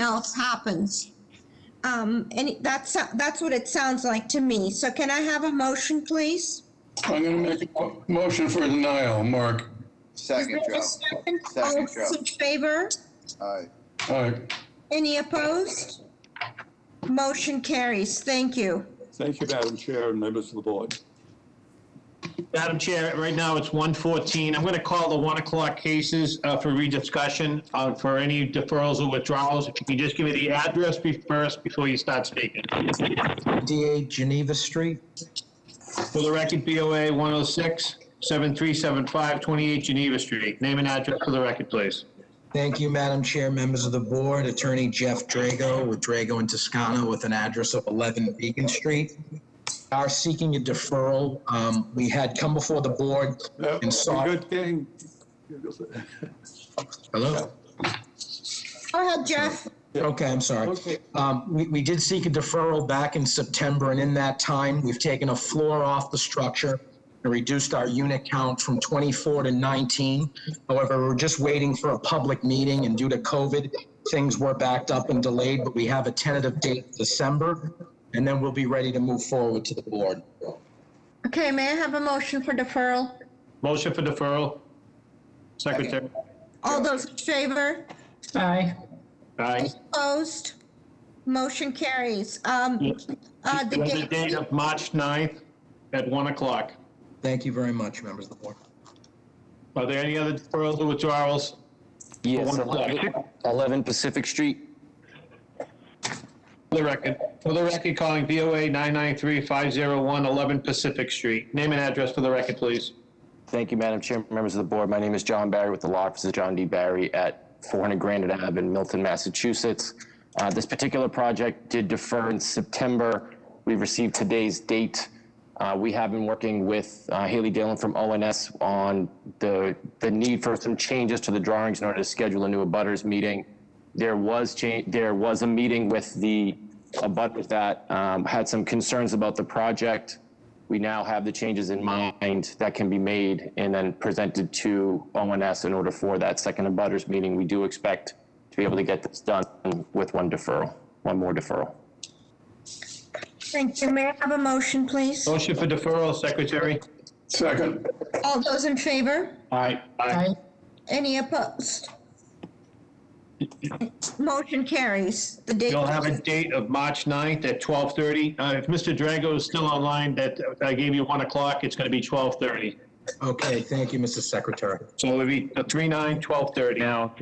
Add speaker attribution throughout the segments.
Speaker 1: else happens. Um, and it- that's, that's what it sounds like to me. So can I have a motion, please?
Speaker 2: I'm going to make a mo- motion for denial, Mark.
Speaker 3: Second, Joe.
Speaker 1: Is there a second? All
Speaker 3: Second,
Speaker 1: those
Speaker 3: Joe.
Speaker 1: in favor?
Speaker 3: Aye.
Speaker 2: All right.
Speaker 1: Any opposed? Motion carries. Thank you.
Speaker 4: Thank you, Madam Chair and members of the board.
Speaker 5: Madam Chair, right now it's 1:14. I'm going to call the 1 o'clock cases uh, for rediscussion uh, for any deferrals or withdrawals. If you can just give me the address be- first before you start speaking.
Speaker 6: DA Geneva Street.
Speaker 5: For the record, BOA 106-7375-28 Geneva Street. Name and address for the record, please.
Speaker 6: Thank you, Madam Chair, members of the board, Attorney Jeff Drago with Drago and Toscano with an address of 11 Beacon Street. Are seeking a deferral. Um, We had come before the board
Speaker 4: Uh,
Speaker 6: and
Speaker 4: a
Speaker 6: sought.
Speaker 4: Good thing.
Speaker 6: Hello?
Speaker 1: Go ahead, Jeff.
Speaker 6: Okay, I'm sorry.
Speaker 4: Okay.
Speaker 6: Um, we, we did seek a deferral back in September, and in that time, we've taken a floor off the structure and reduced our unit count from 24 to 19. However, we're just waiting for a public meeting, and due to COVID, things were backed up and delayed, but we have a tentative date, December, and then we'll be ready to move forward to the board.
Speaker 1: Okay, may I have a motion for deferral?
Speaker 5: Motion for deferral. Secretary.
Speaker 1: All those in favor?
Speaker 7: Aye.
Speaker 5: Aye.
Speaker 1: Opposed? Motion carries. Um, uh, the
Speaker 5: The date
Speaker 1: date,
Speaker 5: of March 9th at 1 o'clock.
Speaker 6: Thank you very much, members of the board.
Speaker 5: Are there any other deferrals or withdrawals?
Speaker 8: Yes,
Speaker 5: For one o'clock.
Speaker 8: 11 11 Pacific Street.
Speaker 5: For the record, for the record, calling VOA 993-501-11 Pacific Street. Name and address for the record, please.
Speaker 8: Thank you, Madam Chair, members of the board. My name is John Barry with the Law Offices of John D. Barry at 400 Granite Ave in Milton, Massachusetts. Uh, This particular project did defer in September. We received today's date. Uh, We have been working with uh, Haley Dillon from ONS on the, the need for some changes to the drawings in order to schedule a new abutters meeting. there was change, there was a meeting with the, about with that, um, had some concerns about the project. We now have the changes in mind that can be made and then presented to ONS in order for that second abutters meeting. We do expect to be able to get this done with one deferral, one more deferral.
Speaker 1: thank you. May I have a motion, please?
Speaker 5: Motion for deferral, Secretary.
Speaker 2: Second.
Speaker 1: All those in favor?
Speaker 5: Aye.
Speaker 7: Aye.
Speaker 1: Any opposed? Motion carries. The date.
Speaker 5: You'll have a date of March 9th at 12:30. Uh, If Mr. Drago is still online, that, I gave you 1 o'clock, it's going to be 12:30.
Speaker 6: Okay, thank you, Mrs. Secretary.
Speaker 5: So it'll be 3/9, 12:30.
Speaker 8: Now,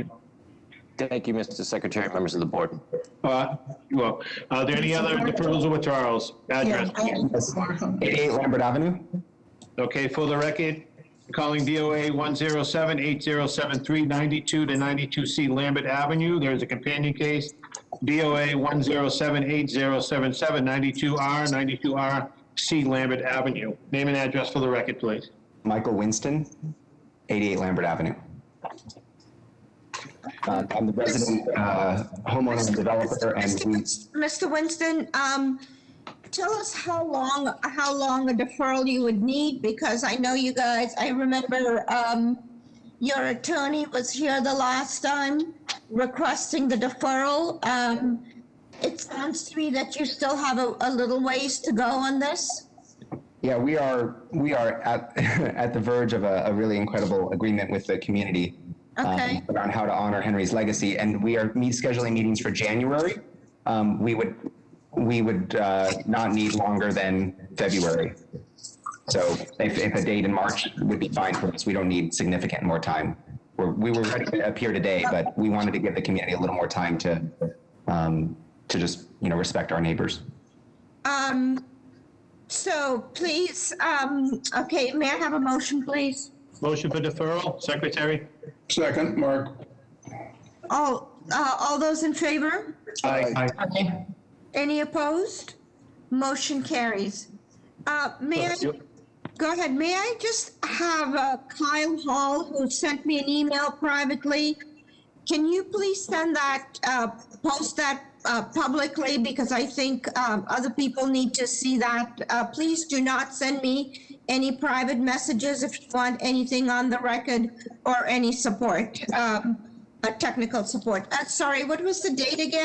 Speaker 8: thank you, Mr. Secretary, members of the board.
Speaker 5: Uh, Well, are there any other deferrals or withdrawals? Address, please.
Speaker 8: 88 Lambert Avenue?
Speaker 5: Okay, for the record, calling BOA 107-8073-92 to 92C Lambert Avenue. There is a companion case, BOA 107-8077-92R, 92R C Lambert Avenue. Name and address for the record, please.
Speaker 9: Michael Winston, 88 Lambert Avenue. Uh, I'm the resident uh, homeowner and developer, and we
Speaker 1: Mr. Winston, um, tell us how long, how long a deferral you would need, because I know you guys, I remember, um, your attorney was here the last time requesting the deferral. Um, it sounds to me that you still have a, a little ways to go on this.
Speaker 9: Yeah, we are we are at at the verge of a, a really incredible agreement with the community um,
Speaker 1: Okay.
Speaker 9: around how to honor Henry's legacy, and we are meet, scheduling meetings for January. Um, we would we would uh, not need longer than February. So if, if a date in March would be fine for us, we don't need significant more time. We're, we were ready to appear today, but we wanted to give the community a little more time to um, to just you know respect our neighbors.
Speaker 1: Um, so please, um, okay, may I have a motion, please?
Speaker 5: Motion for deferral, Secretary?
Speaker 2: Second, Mark.
Speaker 1: All, uh, all those in favor?
Speaker 3: Aye.
Speaker 7: Aye.
Speaker 1: Any opposed? Motion carries. Uh, May I, go ahead, may I just have uh, Kyle Hall, who sent me an email privately? Can you please send that, uh, post that uh, publicly, because I think um, other people need to see that. Uh, Please do not send me any private messages if you want anything on the record or any support, um, uh, technical support. Uh, Sorry, what was the date again?